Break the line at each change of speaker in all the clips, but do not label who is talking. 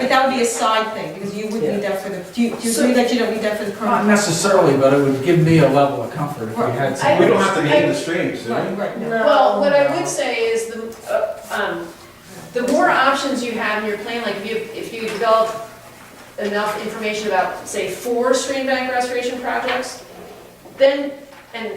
that would be a side thing, because you would
Yeah.
be there for the, do you, do you
So-
agree that you don't be there for the
Not
permit?
necessarily, but it would give me a level of comfort if we had some.
I-
We don't have to name the streams, do
Right,
we?
right, no.
Well, what I would say is the, uh, um, the more options you have in your plan, like if you, if you develop enough information about, say, four stream bank restoration projects, then, and,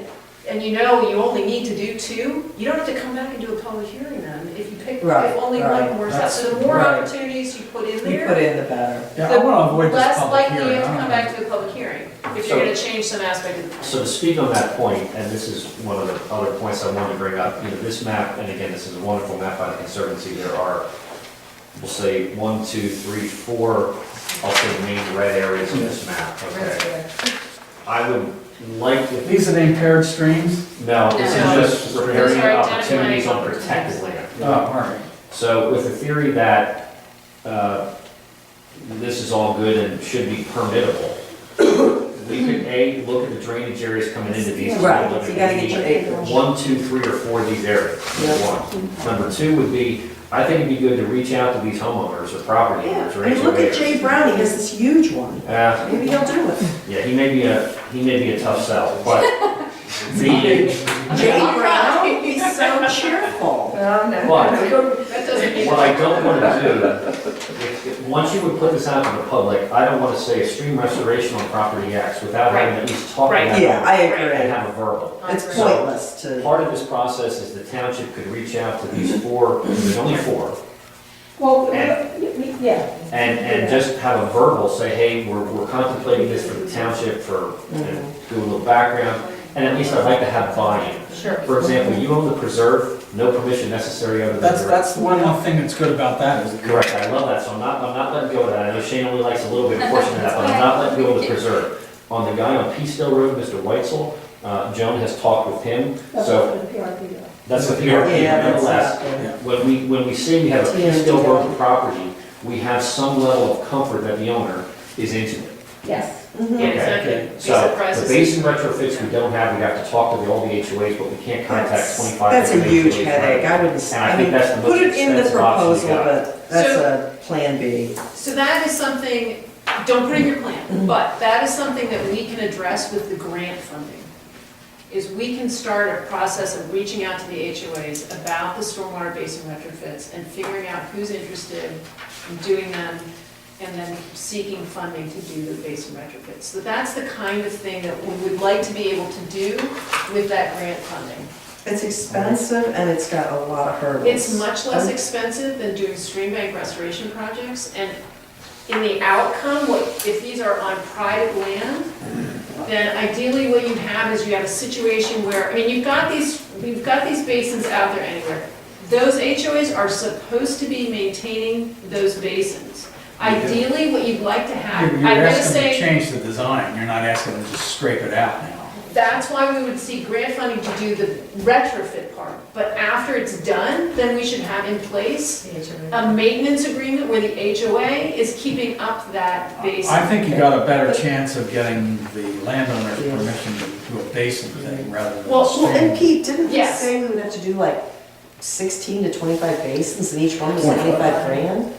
and you know you only need to do two, you don't have to come back and do a public hearing then, if you pick, if
Right,
only
right.
one works out. So the more
That's- right.
opportunities you put in
You put
there,
in the better.
Yeah, I want to avoid this
less
public
likely you
hearing. uh-huh.
have to
I don't
come
know.
back to a public hearing, if
So-
you're gonna change some aspect of the plan.
So to speak on that point, and this is one of the other points I wanted to bring up, you know, this map, and again, this is a wonderful map by the Conservancy, there are, we'll say, one, two, three, four, I'll say the main red areas of this map, okay? I would like to,
These are the impaired streams?
no, this is
No.
just
Those
repairing
are
opportunities on
identifying
protected
opportunities.
land.
Oh, all right.
So with the theory that uh, this is all good and should be permittable, we could, A, look at the drainage areas coming into these. and
Right,
look
so you
at
gotta get your
the
acreage.
One, two, three, or four of these areas, number
Yeah.
one. Number two would be, I think it'd be good to reach out to these homeowners or property owners.
Yeah,
or
and look at
HOAs.
Jay Brown, he has this huge one.
Uh,
Maybe he'll do it.
Yeah, he may be a, he may be a tough sell, but the,
Jay Brown, he's so cheerful.
Oh, no.
but
That doesn't mean.
What I don't want to do, if- if- once you would put this out to the public, I don't want to say stream restoration on property X without having at least talked
Right.
about it.
Yeah, I
And
agree.
have a verbal.
It's pointless to,
Part of this process is the township could reach out to these four, there's only four,
Well, we-
And-
we- yeah.
and, and just have a verbal, say, hey, we're, we're contemplating this for the township for, and
Mm-hmm.
do a little background, and at least I'd like to have buy-in.
Sure.
For example, you own the preserve, no permission necessary under the.
That's,
direct-
that's the one little thing that's good about that is.
Correct, I love that, so I'm not, I'm not letting go of that, I know Shane only likes a little bit of portion of that, but I'm not letting go of the preserve. On the guy on Peace Hill Road, Mr. Weitzel, uh, Joan has talked with him,
that's
so
what the PRP does.
that's the PRP
yeah, that's not
nonetheless.
good.
When we, when we say we have a Peace Hill Road property, we have some level of comfort that the owner is into it.
Yes.
Yeah,
Mhm.
it's not
Okay,
gonna be
So
surprises.
the basin retrofits we don't have, we have to talk to the- all the HOAs, but we can't contact
That's
twenty-five.
that's a
different
huge
HOAs.
headache, I wouldn't, s-
And I
I
think
mean,
that's the most
put it in the
expensive option we
proposal,
got.
but that's a plan B.
So that is something, don't put it in your plan, but that is something that we can address with the grant funding. Is we can start a process of reaching out to the HOAs about the stormwater basin retrofits and figuring out who's interested in doing them and then seeking funding to do the basin retrofits. So that's the kind of thing that we would like to be able to do with that grant funding.
It's expensive and it's got a lot of hurdles.
It's much less expensive than doing stream bank restoration projects, and in the outcome, what, if these are on private land, then ideally what you have is you have a situation where, I mean, you've got these, you've got these basins out there anywhere. Those HOAs are supposed to be maintaining those basins. Ideally, what you'd like to have,
You're
I'm
you're
gonna
asking them
say.
to change the design, you're not asking them to just scrape it out now.
That's why we would seek grant funding to do the retrofit part. But after it's done, then we should have in place a maintenance agreement where the HOA is keeping up that
I
basin.
think you got a better chance of getting the landowner's permission to do a basin thing rather than. a
Well,
Well, and
stream.
Pete, didn't they
Yes.
say we would have to do like sixteen to twenty-five basins and each one was twenty-five grand?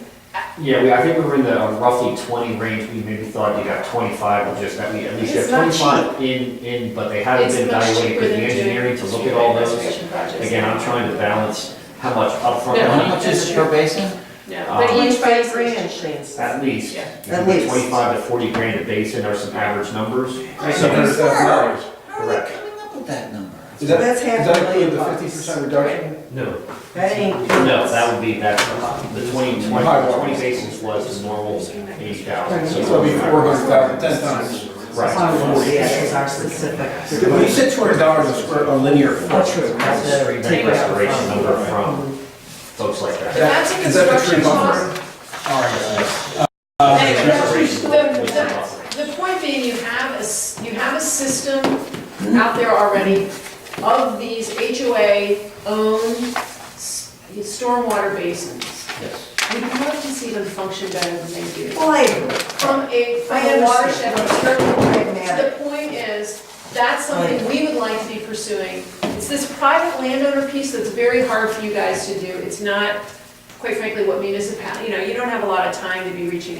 Yeah, we, I think we were in the uh, roughly twenty range, we maybe thought you got twenty-five, or just, I mean, at least you have
It's not
twenty-five in, in, but they haven't
It's
been
much
evaluated,
cheaper
because the
than
engineering
doing
to look at all
street
those.
restoration projects.
Again, I'm trying to balance how much upfront
Yeah.
How
money,
much is it per basin?
No,
Uh,
but each
Twenty-five
basin-
grand, Shane said.
at least.
Yeah.
You
At
can get
least.
Twenty-five to forty grand a basin are some average numbers.
So there's that knowledge.
How are they coming up with that number?
Does that-
That's half
does that
a million
include the
bucks.
50% reduction?
No.
That ain't.
No, that would be, that's a lot. the 20 20
High water.
20 basis was the normal eighty thousand.
Right.
So it'll be four hundred thousand, ten times.
Oh,
Right.
yeah, it's our specific.
When you said two hundred dollars a square, a linear foot.
Oh, true.
That's the
Take
street bank
it out.
restoration number from folks like
But
that.
that's a
Is that the tree
construction cost.
buffer?
All right,
Uh,
Anyway,
Restoration.
the- the, the point being, you have a, s- you have a system out there already of these HOA-owned s- stormwater basins.
Yes.
We'd love to see them function better than they do.
Well, I agree.
From a, from
I
a
understand.
watershed
It's
perspective.
very pragmatic.
The point is, that's something we would like to be pursuing. It's this private landowner piece that's very hard for you guys to do. It's not, quite frankly, what municipality, you know, you don't have a lot of time to be reaching out.